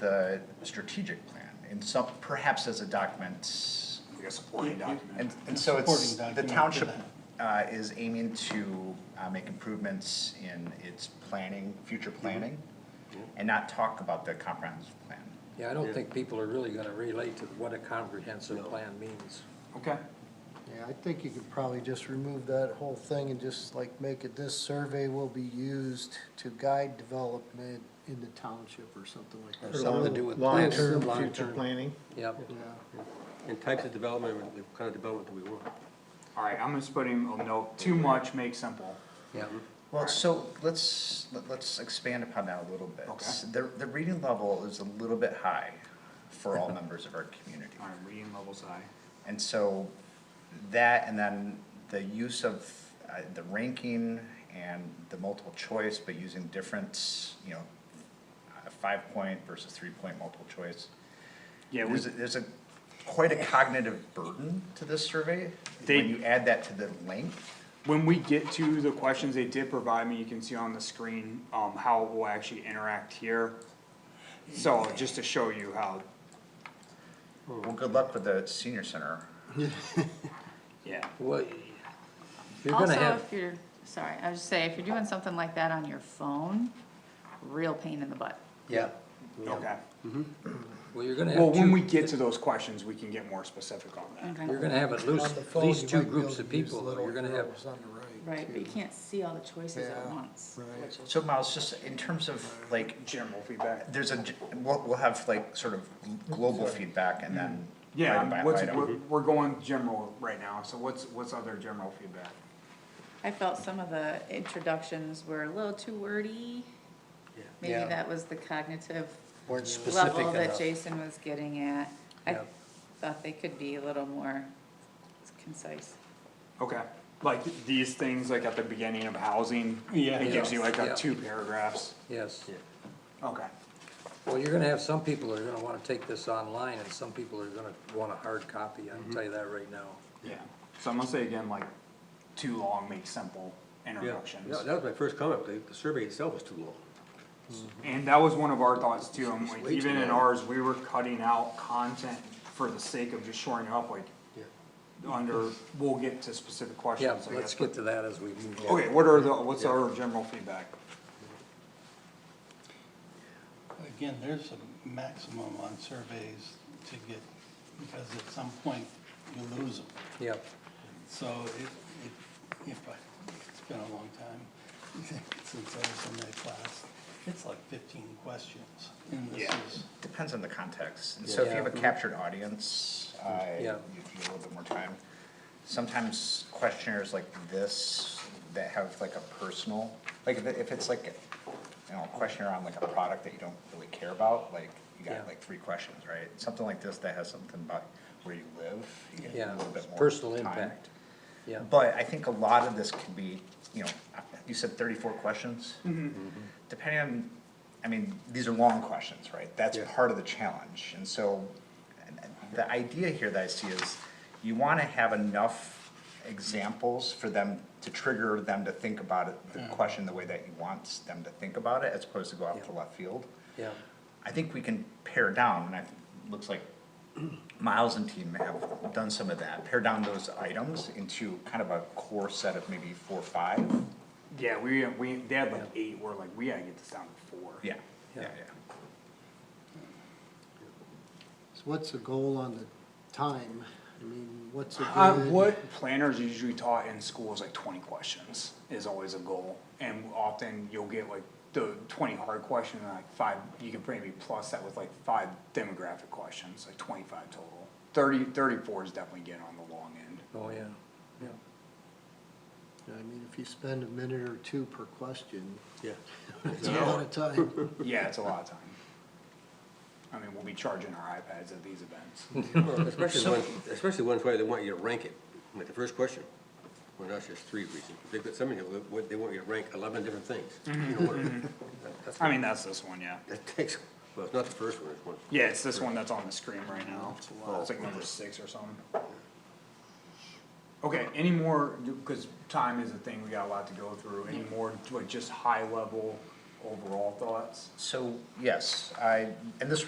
the strategic plan in some, perhaps as a document. Like a supporting document. And, and so it's, Supporting the document for township uh, is aiming to uh, make improvements in its planning, future Mm-hmm. planning, and not talk about the comprehensive plan. Yeah, I don't think people are really gonna relate to what a comprehensive plan means. Okay. Yeah, I think you could probably just remove that whole thing and just like make it, this survey will be used to guide development in the township or something like that. Or something to do with planning. Long-term, future Long-term. planning. Yep. Yeah, And types of development, the kind of development that we want. All right, I'm just putting a note, too much, make simple. Yep. Mm-hmm. Well, so let's, let- let's expand upon that a little bit. Okay. The, the reading level is a little bit high for all members of our community. All right, reading levels high. And so that, and then the use of uh, the ranking and the multiple choice, but using different, you know, uh, five point versus three point multiple choice. Yeah, we- There's, a- there's a, quite a cognitive burden to this survey. They- When you add that to the length, when we get to the questions they did provide me, you can see on the screen, um, how it will actually interact here. So just to show you how, well, good luck with the senior center. yeah, Well, you're Also, gonna have, if you're, sorry, I was just saying, if you're doing something like that on your phone, real pain in the butt. yeah, okay. well, you're gonna have Well, when we two, get to those questions, we can get more specific on that. Okay. you're gonna have at least, On the at phone, least you two might be able groups to of use people, little you're gonna have, arrows on the Right, but you can't see all the choices at Yeah, once. right. So Miles, just in terms of like, General feedback. there's a, g- we'll, we'll have like sort of global feedback and then. item by Yeah, what's, item. we're, we're going general right now, so what's, what's other general feedback? I felt some of the introductions were a little too wordy. Maybe Yeah. that was the cognitive weren't specific level that enough. Jason was getting at. I Yeah. thought they could be a little more concise. Okay, like these things, like at the beginning of housing, Yeah. it gives you like a Yeah. two paragraphs. Yes, Okay, well, you're gonna have some people that are gonna wanna take this online, and some people are gonna want a hard copy, Mm-hmm. I can tell you that right now. yeah, so I'm gonna say again, like, too long, make simple Yeah, introductions. Yeah, that was my first comment, the, the survey itself was too long. And that was one of our thoughts too, and like, way too even in long. ours, we were cutting out content for the sake of just shoring it up, like, under, we'll get to specific Yeah, questions, I let's guess. get to that as we move on. Okay, what are the, what's our general feedback? Again, there's a maximum on surveys to get, because at some point you lose them. Yep, So it, it, if I, it's been a long time since I was in that class. It's like fifteen questions and this Yeah. is, Depends on the context, and so if you have a Yeah. Mm-hmm. captured audience, uh, you Yeah. you need a little bit more time. Sometimes questionnaires like this that have like a personal, like if, it- if it's like, you know, a questionnaire on like a product that you don't really care about, like, you Yeah. got like three questions, right? Something like this that has something about where you live, you get Yeah, a little bit more personal time. impact. yeah, But I think a lot of this could be, you know, you said thirty-four questions? Mm-hmm. Depending on, I mean, these are long questions, right? That's Yeah. part of the challenge, and so, and- and the idea here that I see is, you wanna have enough examples for them, to trigger them to think about it, the question the way that you want them to think about it, as opposed to go out to Yeah. left field. yeah, I think we can pare down, and I, looks like Miles and team have done some of that, pare down those items into kind of a core set of maybe four, or five. Yeah, we, we, they had like eight, we're like, we gotta get this down to four. Yeah, yeah, Yeah. yeah. So what's the goal on the time? I mean, what's a Uh, good? what planners usually taught in school is like twenty questions is always a goal, and often you'll get like the twenty hard questions and like five, you can maybe plus that with like five demographic questions, like twenty-five total. Thirty, thirty-four is definitely getting on the long end. oh, yeah, yeah, I mean, if you spend a minute or two per question, Yeah. it's a lot of time. Yeah, it's a lot of time. I mean, we'll be charging our iPads at these events. Especially when, especially ones where they want you to rank it, like the first question. Well, that's just three reasons. They've got somebody, they want you to rank eleven different things. in order. That- that's- Mm-hmm. I mean, that's this one, yeah. That takes, well, it's not the first one, it's one. Yeah, it's this one that's on the screen right now. It's like number six or something. Okay, any more, because time is a thing, we got a lot to go through, any more, like just high level overall thoughts? So, yes, I, and this